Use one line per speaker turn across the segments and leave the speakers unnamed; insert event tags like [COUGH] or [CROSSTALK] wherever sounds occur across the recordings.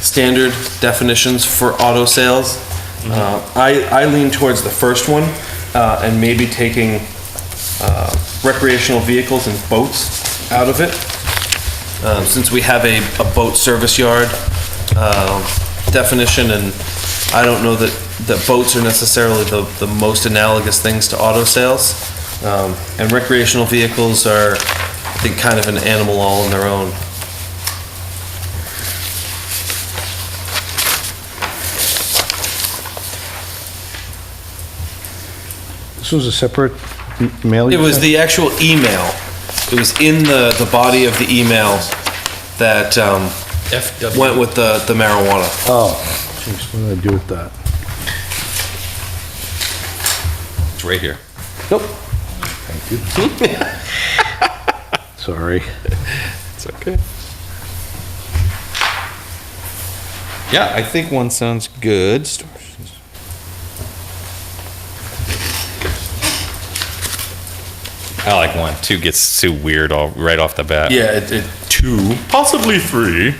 standard definitions for auto sales. Uh, I, I lean towards the first one, uh, and maybe taking, uh, recreational vehicles and boats out of it. Um, since we have a, a boat service yard, um, definition, and I don't know that, that boats are necessarily the, the most analogous things to auto sales. Um, and recreational vehicles are, I think, kind of an animal all on their own.
This was a separate m- mail? you
It was
sent?
the actual email. It was in the, the body of the email that um, went with the, the marijuana.
Oh, jeez, what did I do with that?
It's right here.
Nope.
[LAUGHS] Sorry.
It's okay. Yeah, I think one sounds good. I like one. Two gets too weird all right off the bat.
Yeah, it, it,
two, possibly three.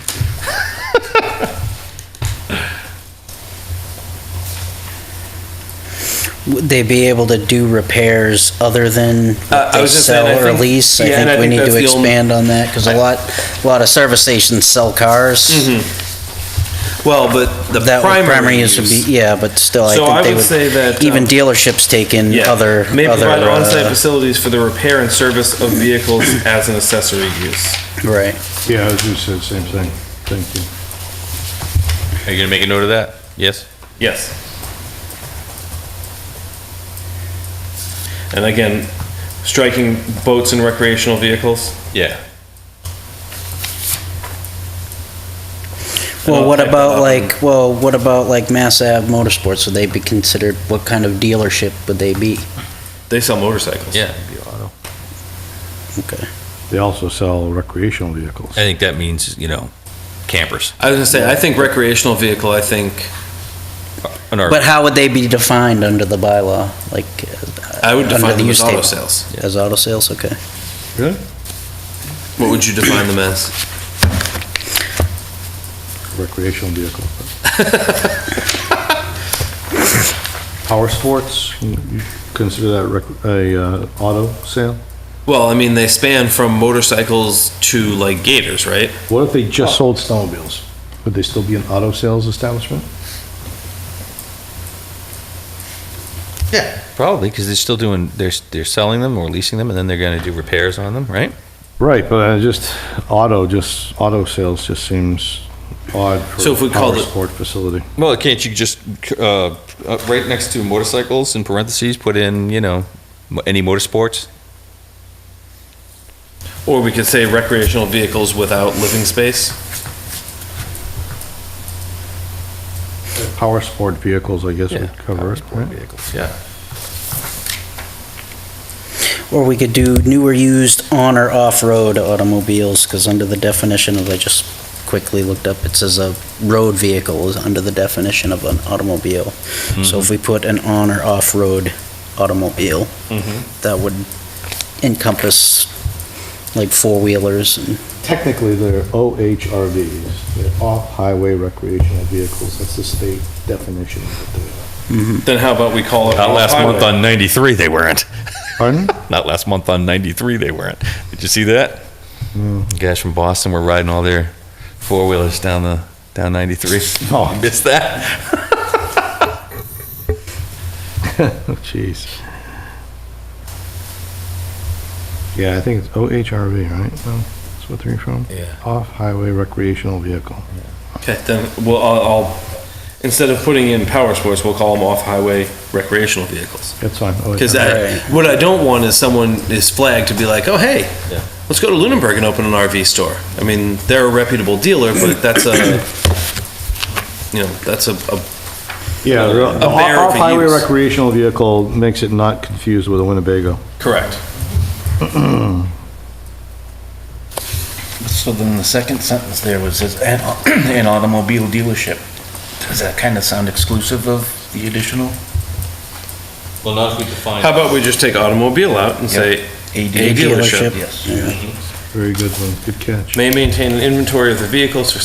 Would they be able to do repairs other than
Uh,
what
I
they
was just saying, I
sell or
think-
lease? I
yeah, and I
think we
think
need
that's
to
the only-
expand on that, because a lot, a lot of service stations sell cars.
well, but Mm-hmm. the
That would-
primary,
primary use would be, yeah, but still, I
So I
think they
would say that,
would, even
um,
dealerships take in
yeah,
other,
may
other,
provide on-site
uh,
facilities for the repair and service of vehicles as an accessory use.
right.
Yeah, I was just said the same thing. Thank you.
Are you gonna make a note of that? Yes.
Yes. And again, striking boats and recreational vehicles.
Yeah.
I'll
Well, what
type that up
about like, well, what about like Mass Ave Motorsports? Would they be considered, what kind of dealership would they be?
They sell motorcycles.
Yeah. it'd be auto.
Okay.
They also sell recreational vehicles.
I think that means you know, campers.
I was gonna say, I think recreational vehicle, I think,
An RV.
But how would they be defined under the bylaw? Like, uh,
I would
Under
define
the
them as
use
auto
table.
sales.
as auto sales? Okay.
Really?
What would you define them as?
Recreational
[LAUGHS]
vehicle. Power sports, you consider that rec- a uh, auto sale?
Well, I mean, they span from motorcycles to like gators, right?
What if they just sold snowmobiles? Would they still be an auto sales establishment?
Yeah, probably because they're still doing they're they're selling them or leasing them, and then they're going to do repairs on them, right?
Right, but I just, auto, just, auto sales just seems odd for
So if we
a
called
power
it-
sport facility.
Well, can't you just uh, uh, right next to motorcycles in parentheses put in you know mo- any motorsports?
Or we could say recreational vehicles without living space.
Power sport vehicles, I guess, would cover it, right?
vehicles. Yeah.
Or we could do new or used on or off-road automobiles, because under the definition of, I just quickly looked up, it says a road vehicle is under the definition of an automobile. So if we put an on or off-road automobile, that would encompass like four-wheelers and
Technically, they're OHRVs, they're off-highway recreational vehicles, that's the state definition.
Then how about we call it?
Not last
off-highway?
month on ninety three they weren't.
[LAUGHS]
Pardon?
Not last month on ninety three they weren't. Did you see that? The Guys from Boston were riding all their four wheelers down the down ninety three. [LAUGHS]
Oh.
missed that.
Oh, Jeez. Yeah, I think it's OHRV, right? No, That's what they're from?
Yeah.
Off-highway recreational vehicle.
Okay, then we'll, I'll, I'll, instead of putting in power sports, we'll call them off-highway recreational vehicles.
That's fine.
Because
OHRV.
I,
Right.
what I don't want is someone is flagged to be like, oh, hey,
Yeah.
let's go to Lunenburg and open an RV store. I mean, they're a reputable dealer, but that's a, you know, that's a, a
Yeah, the
a barrier for
off-highway
use.
recreational vehicle makes it not confused with a Winnebago.
correct.
So then the second sentence there was, is an [CLEARS THROAT] an automobile dealership. Does that kind of sound exclusive of the additional?
Well, now if we define
How about we just take automobile out and say, A dealership.
Yes.
Very good one, good catch.
may maintain an inventory of the vehicles for